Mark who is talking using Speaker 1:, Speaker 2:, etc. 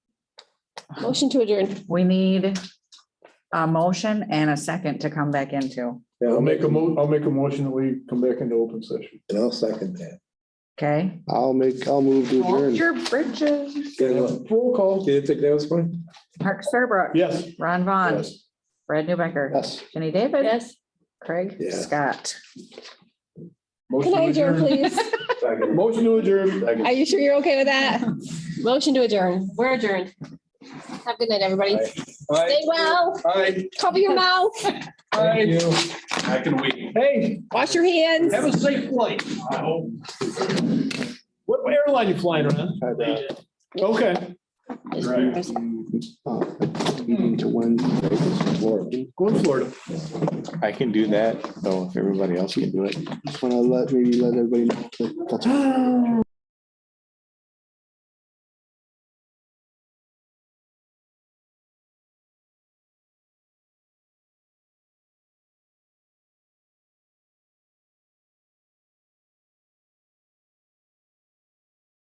Speaker 1: Motion to adjourn.
Speaker 2: We need a motion and a second to come back into,
Speaker 3: Yeah,
Speaker 4: I'll make a mo, I'll make a motion that we come back into open session.
Speaker 3: And I'll second that.
Speaker 2: okay?
Speaker 4: I'll make, I'll move to adjourn.
Speaker 2: Your bridges.
Speaker 3: Yeah, no,
Speaker 4: Roll call.
Speaker 3: Did you think that was fun?
Speaker 2: Mark Serbrook.
Speaker 4: Yes.
Speaker 2: Ron Vaughn,
Speaker 4: Yes.
Speaker 2: Brad Newbecker,
Speaker 4: Yes.
Speaker 2: Jenny David.
Speaker 1: Yes.
Speaker 2: Craig.
Speaker 3: Yeah.
Speaker 2: Scott.
Speaker 1: Can I
Speaker 4: Motion to
Speaker 1: adjourn,
Speaker 4: adjourn.
Speaker 1: please?
Speaker 4: Motion to adjourn.
Speaker 1: Are you sure you're okay with that? Motion to adjourn. We're adjourned. Have a good night, everybody. Stay well.
Speaker 3: Aye.
Speaker 1: Cover your mouth.
Speaker 3: Thank you.
Speaker 5: I can wait.
Speaker 4: Hey,
Speaker 1: Wash your hands.
Speaker 4: have a safe flight.
Speaker 5: I hope.
Speaker 4: What airline you flying on? Okay.
Speaker 5: Right.
Speaker 4: Uh, Meeting
Speaker 6: to Wednesday, Florida.
Speaker 4: Go to Florida.
Speaker 6: I can do that, though, if everybody else can do it.
Speaker 4: Just want to let, maybe let everybody know.